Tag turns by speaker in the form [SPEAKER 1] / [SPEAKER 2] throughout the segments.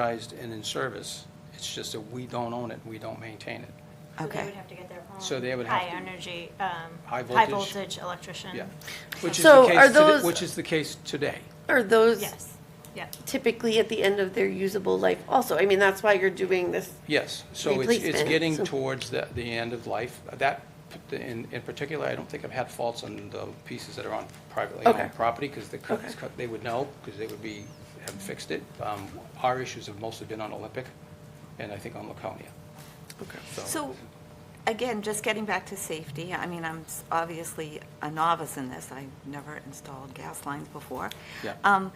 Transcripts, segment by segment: [SPEAKER 1] advertised and in service. It's just that we don't own it, we don't maintain it.
[SPEAKER 2] So they
[SPEAKER 3] Okay.
[SPEAKER 2] would have to get their own.
[SPEAKER 1] So they would have to-
[SPEAKER 2] High energy, um,
[SPEAKER 1] High
[SPEAKER 2] high
[SPEAKER 1] voltage?
[SPEAKER 2] voltage electrician.
[SPEAKER 1] Yeah. Which is the
[SPEAKER 3] So are
[SPEAKER 1] case, today-
[SPEAKER 3] those-
[SPEAKER 1] which is the case today.
[SPEAKER 3] Are those
[SPEAKER 2] Yes, yeah.
[SPEAKER 3] typically at the end of their usable life also? I mean, that's why you're doing this.
[SPEAKER 1] Yes, so it's, it's
[SPEAKER 3] Replacement,
[SPEAKER 1] getting
[SPEAKER 3] so-
[SPEAKER 1] towards the, the end of life. That, p- in, in particular, I don't think I've had faults on the pieces that are on privately
[SPEAKER 3] Okay.
[SPEAKER 1] owned property, because the, co-
[SPEAKER 3] Okay.
[SPEAKER 1] co- they would know, because they would be, have fixed it. Um, Our issues have mostly been on Olympic, and I think on Laconia,
[SPEAKER 4] So, again, just getting back to safety, I mean, I'm s- obviously a novice in this. I've never installed gas lines before.
[SPEAKER 1] Yeah.
[SPEAKER 4] Um,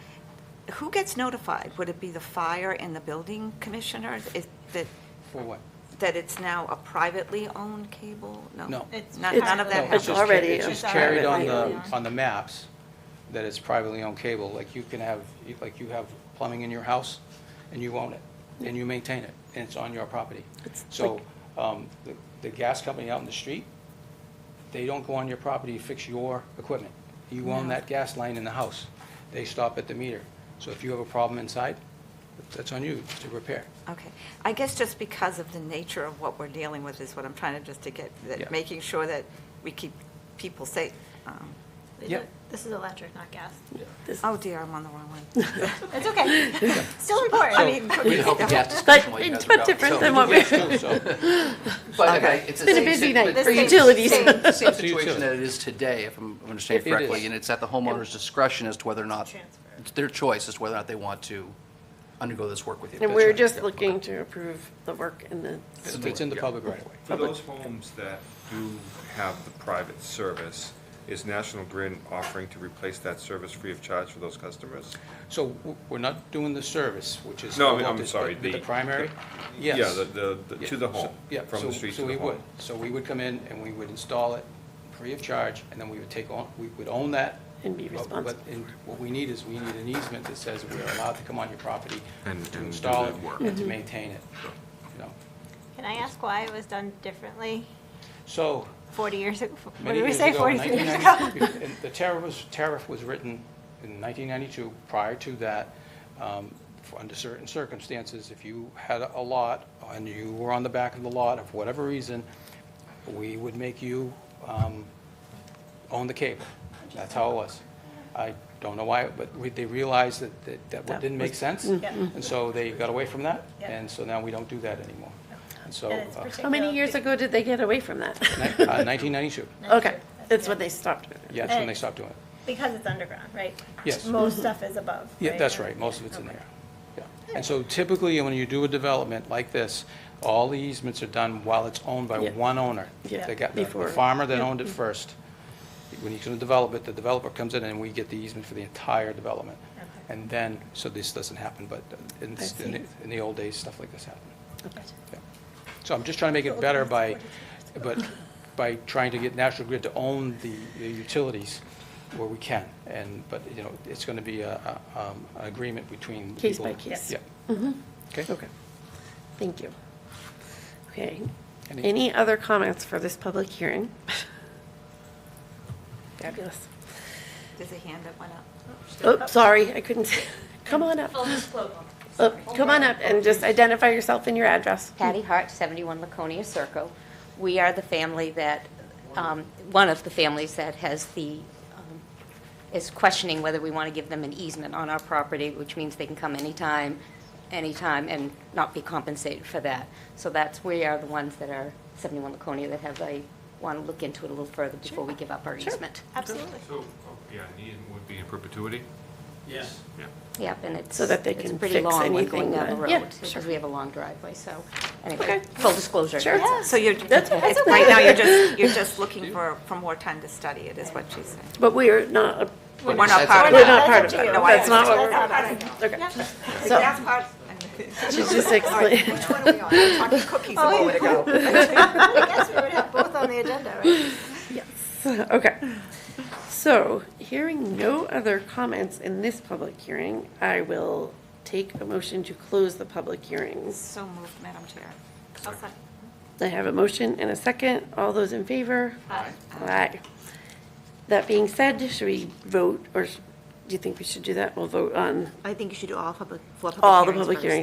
[SPEAKER 4] Who gets notified? Would it be the fire and the building commissioners? Is that,
[SPEAKER 1] For what?
[SPEAKER 4] that it's now a privately owned cable? No.
[SPEAKER 1] No.
[SPEAKER 2] It's
[SPEAKER 4] None none
[SPEAKER 2] privately
[SPEAKER 4] of that
[SPEAKER 1] No, it's
[SPEAKER 4] happens?
[SPEAKER 1] just
[SPEAKER 3] happened.
[SPEAKER 1] ca-
[SPEAKER 3] Already
[SPEAKER 1] It's
[SPEAKER 3] a
[SPEAKER 1] just carried on
[SPEAKER 3] privately
[SPEAKER 1] the,
[SPEAKER 2] owned.
[SPEAKER 1] on the maps that it's privately owned cable. Like you can have, like you have plumbing in your house and you own it and you maintain it and it's on your property.
[SPEAKER 3] It's
[SPEAKER 1] So, um, the, the gas company out in the street, they don't go on your property to fix your equipment. You own that gas line in the house. They stop at the meter. So if you have a problem inside, that's on you to repair.
[SPEAKER 4] Okay. I guess just because of the nature of what we're dealing with is what I'm trying to just to get,
[SPEAKER 1] Yeah.
[SPEAKER 4] that making sure that we keep people safe. Um,
[SPEAKER 2] They
[SPEAKER 1] Yeah.
[SPEAKER 2] do- This is electric, not gas.
[SPEAKER 4] Oh dear, I'm on the wrong one.
[SPEAKER 2] It's okay. Still important.
[SPEAKER 4] I mean,
[SPEAKER 5] We help the gas
[SPEAKER 3] But
[SPEAKER 5] discussion while you guys
[SPEAKER 3] it's
[SPEAKER 5] are
[SPEAKER 3] not
[SPEAKER 5] out.
[SPEAKER 3] different
[SPEAKER 5] So-
[SPEAKER 3] than what we, it's
[SPEAKER 1] Still, so,
[SPEAKER 5] But
[SPEAKER 4] Okay.
[SPEAKER 5] it's the
[SPEAKER 3] been a
[SPEAKER 5] same
[SPEAKER 3] busy
[SPEAKER 5] sit-
[SPEAKER 3] night
[SPEAKER 5] but
[SPEAKER 3] for
[SPEAKER 5] it's
[SPEAKER 2] same-
[SPEAKER 3] utilities.
[SPEAKER 2] same-
[SPEAKER 5] the Same
[SPEAKER 1] So you
[SPEAKER 5] situation
[SPEAKER 1] too.
[SPEAKER 5] that it is today, if I'm understanding
[SPEAKER 1] It is.
[SPEAKER 5] correctly, and it's at the homeowner's discretion as to whether or not,
[SPEAKER 2] Transfer.
[SPEAKER 5] it's their choice as to whether or not they want to undergo this work with you.
[SPEAKER 3] And
[SPEAKER 5] That's
[SPEAKER 3] we're
[SPEAKER 5] right.
[SPEAKER 3] just
[SPEAKER 5] Yeah.
[SPEAKER 3] looking to approve the work and the,
[SPEAKER 1] it's in the public right away.
[SPEAKER 6] For those homes that do have the private service, is National Grid offering to replace that service free of charge for those customers?
[SPEAKER 1] So w- we're not doing the service, which is.
[SPEAKER 6] No,
[SPEAKER 1] low
[SPEAKER 6] I mean, I'm
[SPEAKER 1] voltage,
[SPEAKER 6] sorry,
[SPEAKER 1] but with
[SPEAKER 6] the-
[SPEAKER 1] The primary? Yes.
[SPEAKER 6] Yeah, the, the, the- to the
[SPEAKER 1] Yeah, so-
[SPEAKER 6] home,
[SPEAKER 1] yeah,
[SPEAKER 6] from
[SPEAKER 1] so-
[SPEAKER 6] the street
[SPEAKER 1] so
[SPEAKER 6] to
[SPEAKER 1] we
[SPEAKER 6] the
[SPEAKER 1] would.
[SPEAKER 6] home.
[SPEAKER 1] So we would come in and we would install it free of charge, and then we would take on, we would own that.
[SPEAKER 3] And be
[SPEAKER 1] but-
[SPEAKER 3] responsible.
[SPEAKER 1] But in- what we need is, we need an easement that says we're allowed to come on your property
[SPEAKER 6] And- and
[SPEAKER 1] to
[SPEAKER 6] do
[SPEAKER 1] install it
[SPEAKER 6] that work.
[SPEAKER 3] Mm-hmm.
[SPEAKER 1] and to maintain it, you know.
[SPEAKER 2] Can I ask why it was done differently
[SPEAKER 1] So,
[SPEAKER 2] 40 years ago? What
[SPEAKER 1] many
[SPEAKER 2] did we
[SPEAKER 1] years
[SPEAKER 2] say,
[SPEAKER 1] ago,
[SPEAKER 2] 43 years ago?
[SPEAKER 1] 1990 and The tariff was, tariff was written in 1992. Prior to that, um, for- under certain circumstances, if you had a lot and you were on the back of the lot, of whatever reason, we would make you um, own the cable. That's how it was. I don't know why, but we- they realized that- that that
[SPEAKER 3] That
[SPEAKER 1] didn't make
[SPEAKER 3] was-
[SPEAKER 1] sense,
[SPEAKER 2] Yeah.
[SPEAKER 1] and so they got away from that,
[SPEAKER 2] Yeah.
[SPEAKER 1] and so now we don't do that anymore. And so,
[SPEAKER 2] And it's
[SPEAKER 1] uh,
[SPEAKER 2] particular-
[SPEAKER 3] how many years ago did they get away from that?
[SPEAKER 1] ni- uh, 1992,
[SPEAKER 3] Okay, that's when they stopped.
[SPEAKER 1] yeah, that's when
[SPEAKER 2] And-
[SPEAKER 1] they stopped doing it.
[SPEAKER 2] Because it's underground, right?
[SPEAKER 1] Yes.
[SPEAKER 2] Most stuff is above.
[SPEAKER 1] Yeah, that's right, most of it's in there. Yeah. And so typically, when you do a development like this, all the easements are done while it's owned by
[SPEAKER 3] Yeah.
[SPEAKER 1] one owner.
[SPEAKER 3] Yeah,
[SPEAKER 1] They got the- the
[SPEAKER 3] before. Mm-hmm.
[SPEAKER 1] farmer that owned it first. When you can develop it, the developer comes in and we get the easement for the entire development.
[SPEAKER 2] Okay.
[SPEAKER 1] And then, so this doesn't happen, but in,
[SPEAKER 3] I see.
[SPEAKER 1] in the- in the old days, stuff like this happened. Yeah. So I'm just trying to make it better by, but by trying to get National Grid to own the the utilities where we can. And, but, you know, it's going to be a, a, um, an agreement between.
[SPEAKER 3] Case
[SPEAKER 1] people.
[SPEAKER 3] by case.
[SPEAKER 1] Yeah. Okay.
[SPEAKER 3] Okay, thank you. Okay,
[SPEAKER 1] Any-
[SPEAKER 3] any other comments for this public hearing? Fabulous.
[SPEAKER 4] There's a hand that went up.
[SPEAKER 3] Oh, sorry, I couldn't, come on up. Oh, Come on up and just identify yourself and your address.
[SPEAKER 7] Patty Hart, 71 Laconia Circle. We are the family that, um, one of the families that has the, um, is questioning whether we want to give them an easement on our property, which means they can come anytime, anytime, and not be compensated for that. So that's, we are the ones that are 71 Laconia that have, I want to look into it a little further before we give up our easement.
[SPEAKER 2] Absolutely.
[SPEAKER 8] So, oh, yeah, Needham would be in perpetuity?
[SPEAKER 1] Yes.
[SPEAKER 8] Yeah.
[SPEAKER 7] Yep, and it's,
[SPEAKER 3] So that they
[SPEAKER 7] it's
[SPEAKER 3] can
[SPEAKER 7] pretty
[SPEAKER 3] fix
[SPEAKER 7] long when
[SPEAKER 3] anything
[SPEAKER 7] going down the
[SPEAKER 3] that- yeah,
[SPEAKER 7] road,
[SPEAKER 3] sure.
[SPEAKER 7] because we have a long driveway, so,
[SPEAKER 3] Okay.
[SPEAKER 7] anyway, full disclosure.
[SPEAKER 3] Sure.
[SPEAKER 7] that's it.
[SPEAKER 4] So you're,
[SPEAKER 3] That's okay.
[SPEAKER 4] it's- right now, you're just, you're just looking for, for more time to study it, is what she's saying.
[SPEAKER 3] But we are not,
[SPEAKER 4] We're not
[SPEAKER 5] that's
[SPEAKER 4] part of
[SPEAKER 3] we're not
[SPEAKER 4] that.
[SPEAKER 3] part of it.
[SPEAKER 4] No, I
[SPEAKER 3] That's not what we're,
[SPEAKER 4] understand.
[SPEAKER 3] okay.
[SPEAKER 4] The
[SPEAKER 3] So-
[SPEAKER 4] gas part-
[SPEAKER 3] She just explained.
[SPEAKER 4] Which one are we on? I talked to cookies a moment ago.
[SPEAKER 2] I guess we would have both on the agenda, right?
[SPEAKER 3] Okay. So, hearing no other comments in this public hearing, I will take a motion to close the public hearings.
[SPEAKER 4] So moved, Madam Chair.
[SPEAKER 2] I'll second.
[SPEAKER 3] I have a motion and a second. All those in favor? Aye. Aye. That being said, should we vote, or sh- do you think we should do that? We'll vote on
[SPEAKER 4] I think you should do all public,
[SPEAKER 3] all the public hearings